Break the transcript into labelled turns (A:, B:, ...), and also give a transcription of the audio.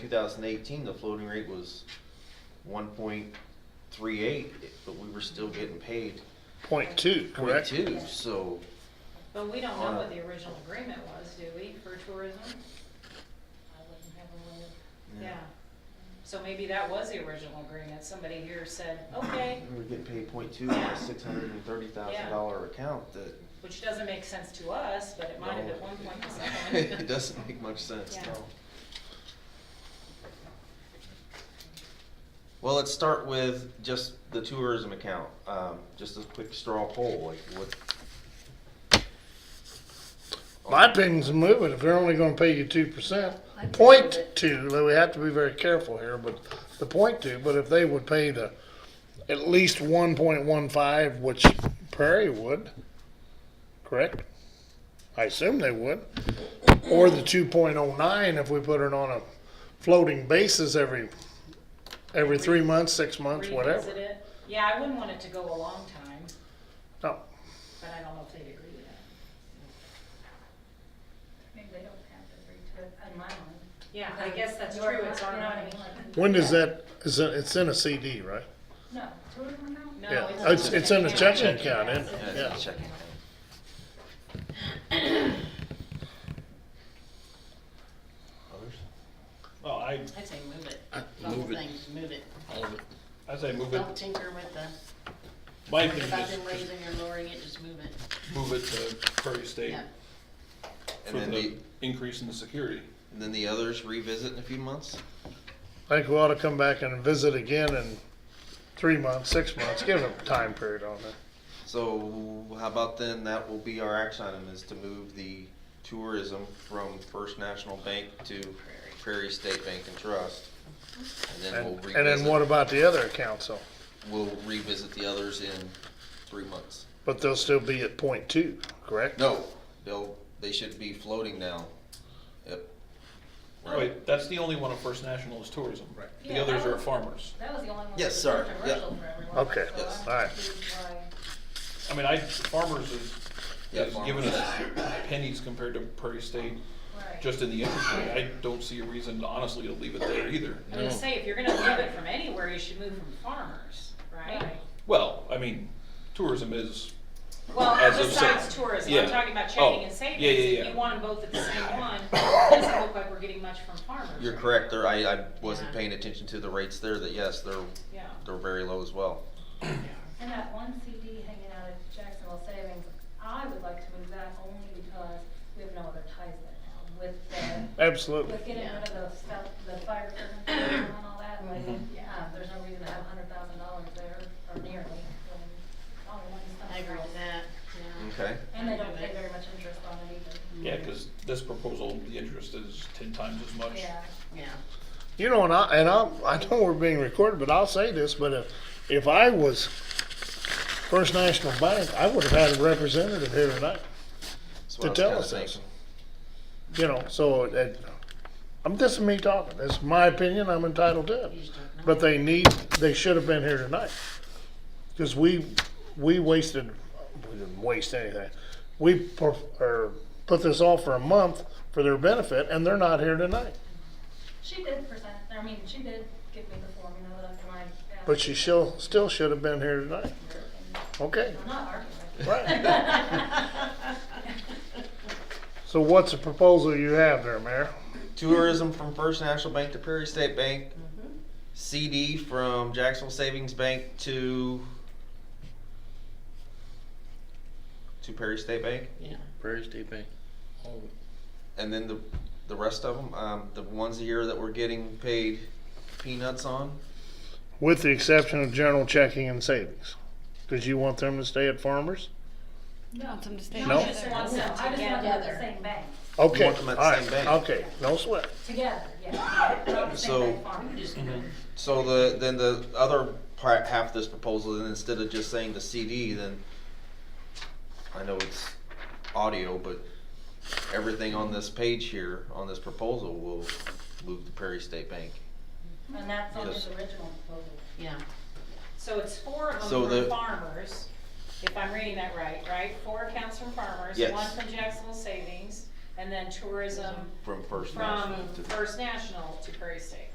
A: 2018, the floating rate was 1.38, but we were still getting paid
B: Point two, correct?
A: two. So
C: But we don't know
A: Uh,
C: what the original agreement was, do we, for tourism?
A: Yeah.
C: Yeah. So maybe that was the original agreement. Somebody here said, okay,
A: we were getting paid point two on a $630,000 account that
C: which doesn't make sense to us, but it might have
A: No.
C: at one point to
A: it
C: someone.
A: doesn't make much sense.
C: Yeah.
A: No. Well, let's start with just the tourism account. Um, just a quick straw poll, like what?
B: My opinion's a moving, if they're only gonna pay you two percent,
D: I think
B: point
D: that-
B: two, though we have to be very careful here, but the point two, but if they would pay the at least one point one five, which Prairie would, correct? I assume they would, or the two point oh nine if we put it on a floating basis every, every three months, six months,
C: Revisit
B: whatever.
C: it. Yeah, I wouldn't want it to go a long time,
B: No,
C: but I don't know if they'd agree with that.
D: Maybe they don't have it very tight on my one.
C: Yeah, I guess that's
D: Your
C: true. It's our
D: you know what I
C: money.
D: mean, like-
B: when does that, is it, it's in a CD, right?
D: No, tourism amount?
C: No,
B: Yeah,
C: it's
B: Oh, it's,
C: just
B: it's in the
C: account.
B: checking account, isn't
A: Yeah,
B: it?
A: it's a
B: Yeah.
A: checking account. Others?
E: Well, I,
F: I'd say move it. Move it. Move it.
E: I say move it,
F: Don't tinker with the,
E: my thing
F: about them
E: is
F: raising or lowering it, just move it.
E: move it to Prairie State
F: Yeah.
A: And
E: for
A: then the,
E: the increase in the security.
A: and then the others revisit in a few months?
B: I think we ought to come back and visit again in three months, six months, give them a time period on that.
A: So how about then, that will be our action item, is to move the tourism from First National Bank to Prairie State Bank and Trust. And then we'll
B: And, and then what
A: revisit,
B: about the other accounts though?
A: we'll revisit the others in three months.
B: But they'll still be at point two, correct?
A: No, they'll, they should be floating now. Yep. Right.
E: Wait, that's the only one of First National is tourism. Right. The
D: Yeah,
E: others
D: that
E: are
D: was-
E: farmers.
D: That was the only one.
A: Yes,
D: that
A: sir.
D: was
A: Yep.
D: Controversial for everyone.
B: Okay,
D: so uh,
A: Yes.
D: I'm
B: all right.
D: confused why-
E: I mean, I, farmers is,
A: Yeah,
E: is giving
A: farmers.
E: us pennies compared to Prairie State,
D: Right.
E: just in the interest rate. I don't see a reason, honestly, to leave it there either.
C: I was gonna say, if you're gonna move it from anywhere, you should move from farmers, right?
D: Right.
E: Well, I mean, tourism is,
C: Well,
E: As of
C: besides
E: sep-
C: tourism,
E: yeah.
C: I'm talking about
E: Oh,
C: checking and
E: yeah, yeah,
C: savings, if
E: yeah.
C: you want them both at the same one, it doesn't look like we're getting much from farmers.
A: You're correct, there, I, I wasn't
C: Yeah.
A: paying attention to the rates there, that yes, they're,
C: Yeah.
A: they're very low as well.
D: And that one CD hanging out at Jacksonville Savings, I would like to move that only because we have no other ties there now with the
B: Absolutely.
D: With getting rid of the stuff, the fire department and all that, like, yeah, there's no reason to have a hundred thousand dollars there, or nearly, when all the money's not
F: I agree with that, yeah.
A: Okay,
D: And they don't pay very much interest on it either.
E: yeah, because this proposal, the interest is ten times as much.
D: Yeah,
F: Yeah.
B: You know, and I, and I, I know we're being recorded, but I'll say this, but if, if I was First National Bank, I would have had a representative here tonight.
A: that's
B: To
A: what
B: tell
A: I was
B: us
A: kinda
B: this.
A: thinking.
B: You know, so it, I'm, this is me talking. This is my opinion. I'm entitled to it.
F: You just don't know.
B: But they need, they should have been here tonight. Because we, we wasted, we didn't waste anything. We per- or put this off for a month for their benefit and they're not here tonight.
D: she did present, I mean, she did give me the formula that I.
B: But she still, still should have been here tonight. Okay,
D: I'm not arguing. with you.
B: right. So what's the proposal you have there, Mayor?
A: Tourism from First National Bank to Prairie State Bank. CD from Jacksonville Savings Bank to to Prairie State Bank,
F: Yeah.
G: Prairie State Bank. All of it.
A: and then the the rest of them, um, the ones a year that we're getting paid peanuts on.
B: With the exception of general checking and savings. Because you want them to stay at farmers?
C: No,
B: No.
C: she just wants
D: No,
C: them
D: I just want them at the
C: together.
D: same bank,
B: Okay,
A: want them
B: all
A: at the same
B: right,
A: bank.
B: okay, no sweat.
D: together, yeah, not the
A: So-
D: same bank farm.
F: Just move it.
A: So the then the other part half of this proposal, then instead of just saying the CD, then I know it's audio, but everything on this page here on this proposal will move to Prairie State Bank.
D: And that's on his
A: Yes.
D: original proposal.
F: Yeah.
C: So it's four of
A: So
C: them
A: the-
C: from farmers, if I'm reading that right, right? Four accounts from farmers,
A: Yes.
C: one from Jacksonville Savings, and then tourism
A: from First
C: from
A: National to.
C: First National to Prairie State.